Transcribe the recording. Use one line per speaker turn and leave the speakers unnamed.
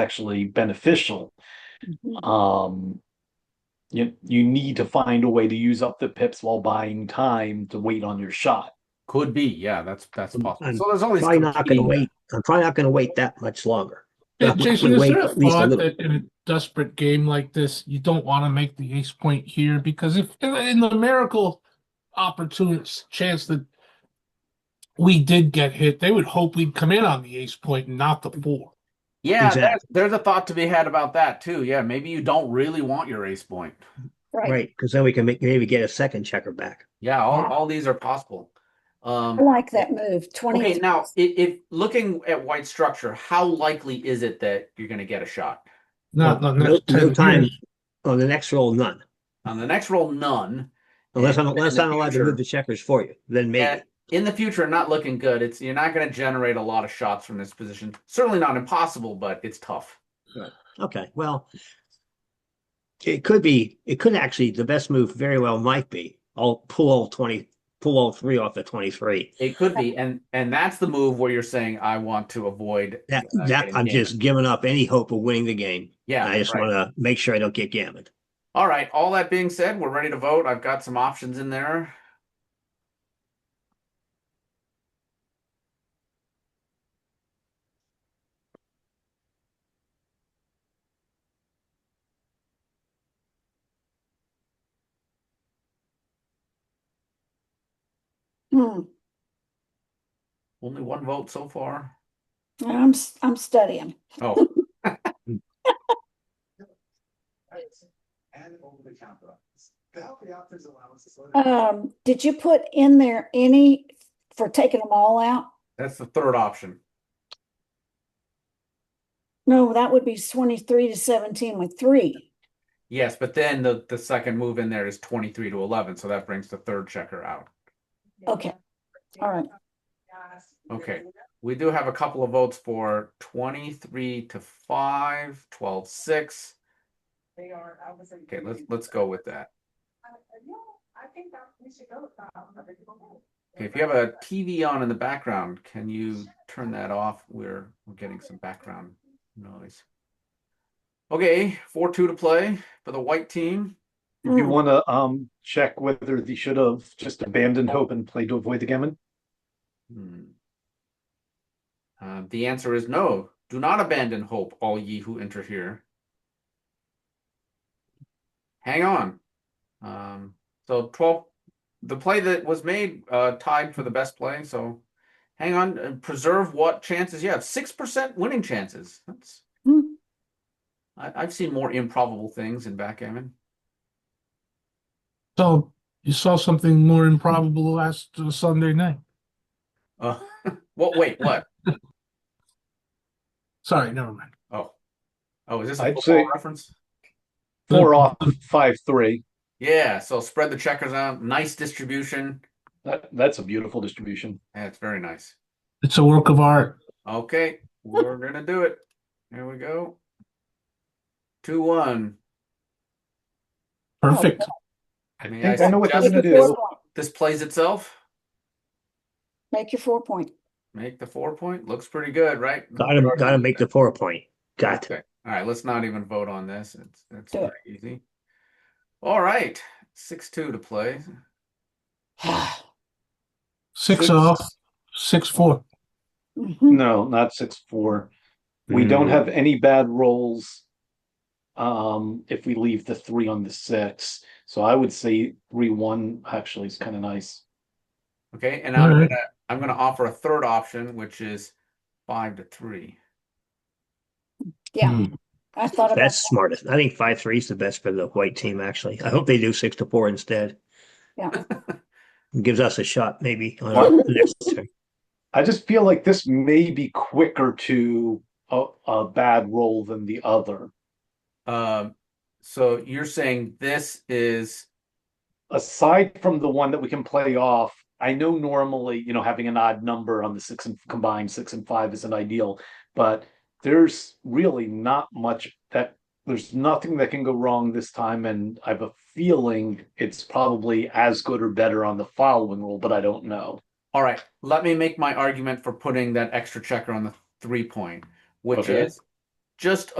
actually beneficial. Um, you, you need to find a way to use up the pips while buying time to wait on your shot.
Could be, yeah, that's, that's
And-
possible.
Um, and
So there's always.
Probably not gonna
competing-
wait, I'm probably not gonna wait that much longer.
Yeah,
We-
Jason,
we
is
wait
there a
at least a
thought
little.
that in a desperate game like this, you don't want to make the ace point here because if in, in the miracle opportunity chance that we did get hit, they would hope we'd come in on the ace point and not the four.
Yeah,
Exactly.
there's, there's a thought to be had about that too. Yeah, maybe you don't really want your ace point.
Right.
Right, because then we can make, maybe get a second checker back.
Yeah, all, all these are possible. Um,
I like that move. Twenty.
okay, now if, if looking at white structure, how likely is it that you're going to get a shot
Not
No-
the next
no
10
time.
years.
On the next roll, none,
on the next roll? None.
unless I'm,
And-
unless
and
I'm allowed to
future-
move the checkers for you, then
Yeah,
maybe.
in the future, not looking good. It's you're not going to generate a lot of shots from this position. Certainly not impossible, but it's tough.
Okay, well, it could be, it could actually, the best move very well might be, I'll pull all twenty, pull all three off the twenty-three.
It could be, and and that's the move where you're saying I want to avoid
That,
uh,
that,
getting
I'm
gammoned."
just giving up any hope of winning the game.
yeah.
I just
right.
wanna make sure I don't get gammoned.
All right. All that being said, we're ready to vote. I've got some options in there.
Hmm.
Only one vote so far.
I'm s- I'm studying.
Oh,
and over the counter. The healthy options allowance is.
Um, did you put in there any for taking them all out?
that's the third option.
No, that would be twenty-three to seventeen with three.
Yes, but then the the second move in there is 23 to 11, so that brings the third checker out.
Okay. All right.
Okay. We do have a couple of votes for 23 to 5, 12 6.
They are, I was.
Okay, let's let's go with that.
Uh, I think that we should go.
Okay, if you have a TV on in the background, can you turn that off? We're we're getting some background noise. Okay, four two to play for the white team.
If you
Hmm.
want to um check whether they should have just abandoned hope and played to avoid the gammon,
Hmm. Uh, the answer is no. Do not abandon hope, all ye who enter here. Hang on. Um, so 12, the play that was made uh, tied for the best play. So hang on and preserve what chances you have. 6% winning chances. That's
Hmm.
I, I've seen more improbable things in backgammon.
So you saw something more improbable last uh, Sunday night.
Oh.
Uh, what? Wait, what?
Sorry, never mind.
Oh, oh, is this a
I'd
football
say-
reference?
four off, five, three.
Yeah. So spread the checkers out. Nice distribution.
That, that's a beautiful distribution.
That's very nice.
It's a work of art.
Okay, we're gonna do it. Here we go. Two one.
Perfect.
I
May
think
I
I know what they're
suggest-
gonna
Make your
do.
four point.
This plays itself.
Make your four point.
Make the four point. Looks pretty good, right?
Gotta, gotta make the four point, got to.
Okay. All right, let's not even vote on this. It's it's
Do it.
pretty easy. All right, six two to play.
Six
Six.
off, six four.
Mhm.
No, not six four. We don't have any bad rolls. Um, if we leave the three on the six, so I would say three one actually is kind of nice.
Okay, and
All
I'm
Mm-hmm.
right.
gonna I'm gonna offer a third option, which is five to three.
Hmm.
Hmm.
Yeah, I thought about
That's
that.
smartest. I think five three is the best for the white team, actually. I hope they do six to four instead.
Yeah.
Gives us a shot, maybe, on our next turn.
I just feel like this may be quicker to a, a bad roll than the other.
Um, so you're saying this is
Aside from the one that we can play off, I know normally, you know, having an odd number on the six and combined six and five isn't ideal, but there's really not much that there's nothing that can go wrong this time. And I have a feeling it's probably as good or better on the following roll, but I don't know.
All right, let me make my argument for putting that extra checker on the three point, which
Okay.
is just